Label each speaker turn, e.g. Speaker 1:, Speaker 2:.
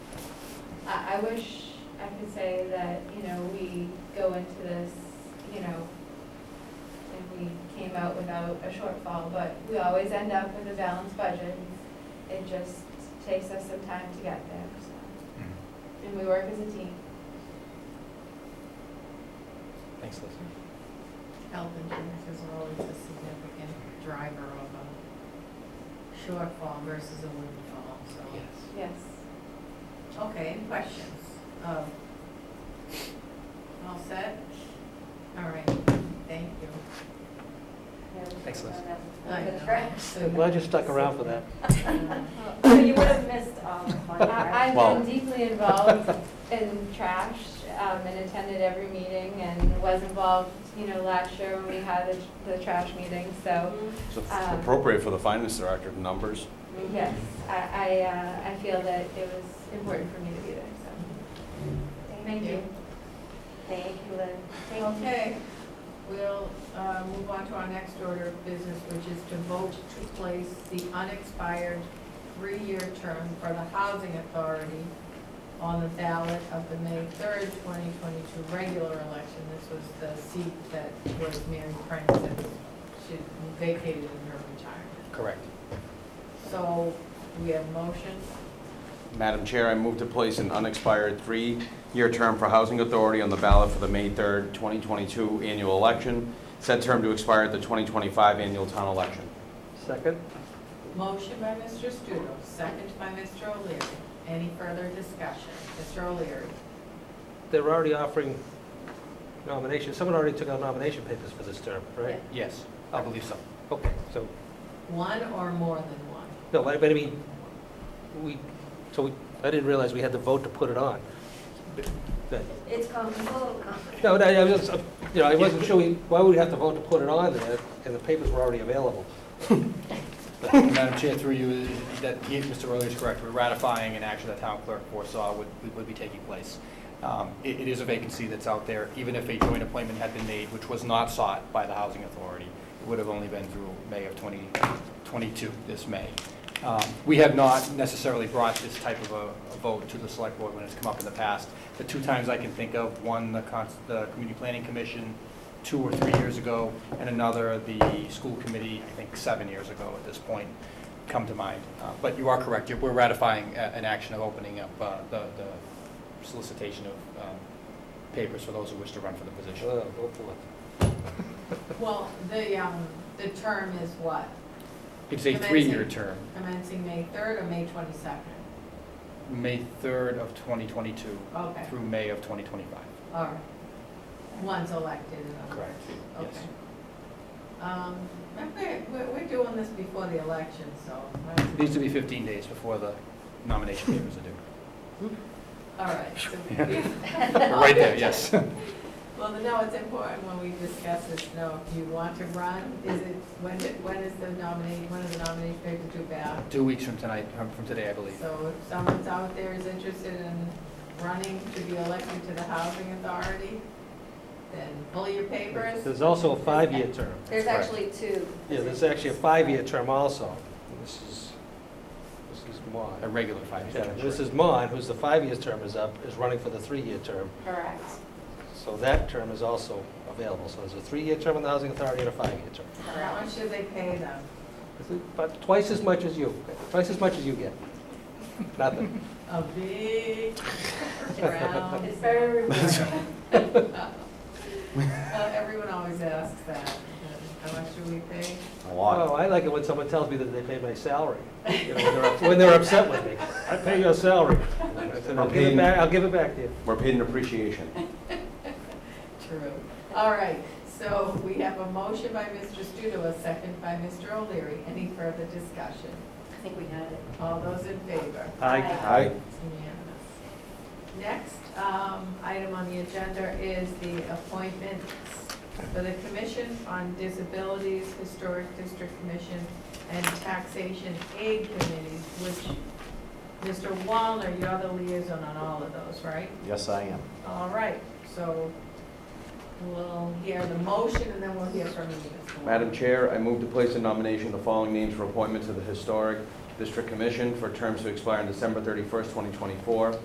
Speaker 1: I wish I could say that, you know, we go into this, you know, like we came out without a shortfall, but we always end up with a balanced budget. It just takes us some time to get there, so, and we work as a team.
Speaker 2: Thanks, Liz.
Speaker 3: Health insurance is always a significant driver of a shortfall versus a windfall, so.
Speaker 1: Yes.
Speaker 3: Okay, any questions? Um, All set? All right, thank you.
Speaker 2: Thanks, Liz.
Speaker 3: I know.
Speaker 2: I'm glad you stuck around for that.
Speaker 3: Um,
Speaker 4: So you would have missed all the fun, right?
Speaker 1: I-
Speaker 2: Wow.
Speaker 1: I've been deeply involved in trash um, and attended every meeting and was involved, you know, last year when we had the- the trash meeting, so,
Speaker 5: It's
Speaker 1: Um,
Speaker 5: appropriate for the finance director, numbers.
Speaker 1: yes, I, I, uh, I feel that it was important for me to be there, so, thank you.
Speaker 4: Thank you, Lynn. Thank you.
Speaker 3: Okay, we'll uh, move on to our next order of business, which is to vote to place the unexpired three-year term for the Housing Authority on the ballot of the May 3rd, 2022 regular election. This was the seat that was Mary Frank's that she vacated in her retirement.
Speaker 2: Correct.
Speaker 3: So we have motion.
Speaker 5: Madam Chair, I move to place an unexpired three-year term for Housing Authority on the ballot for the May 3rd, 2022 annual election. Said term to expire at the 2025 annual town election.
Speaker 2: Second?
Speaker 3: Motion by Mr. Studo, second by Mr. O'Leary. Any further discussion? Mr. O'Leary.
Speaker 2: They're already offering nominations. Someone already took out nomination papers for this term, right?
Speaker 6: Yes, I believe so.
Speaker 2: Okay, so,
Speaker 3: One or more than one?
Speaker 2: no, I- but I mean, we, so we, I didn't realize we had to vote to put it on. That-
Speaker 4: It's com- it's a little complicated.
Speaker 2: No, no, I was, just, uh, you know, I wasn't sure, we- why would we have to vote to put it on there, and the papers were already available?
Speaker 6: Madam Chair, through you, that, he- Mr. Early is correct, we're ratifying an action that town clerk foresaw would, would be taking place. Um, It, it is a vacancy that's out there, even if a joint appointment had been made, which was not sought by the Housing Authority, it would have only been through May of 2022, this May. Um, We have not necessarily brought this type of a a vote to the select board when it's come up in the past. The two times I can think of, one, the cons- the Community Planning Commission, two or three years ago, and another, the school committee, I think, seven years ago at this point, come to mind. Uh, But you are correct, You're- we're ratifying a- an action of opening up uh, the the solicitation of um, papers for those who wish to run for the
Speaker 2: Uh,
Speaker 6: position.
Speaker 2: vote for it.
Speaker 3: Well, the, um, the term is what?
Speaker 6: It's a
Speaker 3: Commencing.
Speaker 6: three-year term,
Speaker 3: Commencing May third or May twenty-second?
Speaker 6: May 3rd of 2022
Speaker 3: Okay,
Speaker 6: through May of 2025.
Speaker 3: all right. One's elected and others.
Speaker 6: Correct, yes.
Speaker 3: Okay. Um, remember, we're, we're doing this before the election, so.
Speaker 6: It Needs to be 15 days before the nomination papers are due.
Speaker 3: All right. so we-
Speaker 6: We're Right there, yes.
Speaker 3: Well, no, it's important when we discuss this, no, if you want to run, is it, when, did- when is the nominee, when is the nominee paper due back?
Speaker 6: Two weeks from tonight, from from today, I believe.
Speaker 3: So if someone's out there is interested in running to be elected to the housing authority, then pull your papers.
Speaker 2: There's also a five-year term.
Speaker 4: There's actually two.
Speaker 2: Yeah, there's
Speaker 4: positions.
Speaker 2: actually a five-year term also. This is, this is
Speaker 6: A
Speaker 2: Mon.
Speaker 6: regular five-year
Speaker 2: Yeah,
Speaker 6: term.
Speaker 2: this is Mon, who's the five-year term is up, is running for the three-year term.
Speaker 1: Correct.
Speaker 2: So that term is also available. So there's a three-year term on the Housing Authority and a five-year term.
Speaker 3: How much should they pay them?
Speaker 2: But twice as much as you, twice as much as you get. Nothing.
Speaker 3: A big round.
Speaker 1: It's very rewarding.
Speaker 3: Well, everyone always asks that. How much do we pay?
Speaker 5: A
Speaker 2: Oh, I like it when someone tells me that they pay my salary. You know, when they're up- When they're upset with me. I pay your salary. I said, I'll give it back, I'll give it back to you.
Speaker 5: We're paid in appreciation.
Speaker 3: True. All right, so we have a motion by Mr. Studo, a second by Mr. O'Leary. Any further discussion?
Speaker 4: I think we had it.
Speaker 3: All those in favor?
Speaker 2: Aye.
Speaker 5: Aye.
Speaker 3: It's unanimous. Next um, item on the agenda is the appointments for the Commission on Disabilities, Historic District Commission, and Taxation Aid Committees, which, Mr. Wallner, you're the liaison on all of those, right?
Speaker 5: Yes, I am.
Speaker 3: All right, so we'll hear the motion, and then we'll hear from you, Mr. Wallner.
Speaker 5: Madam Chair, I move to place a nomination of the following names for appointment to the Historic District Commission for terms to expire on December 31st, 2024.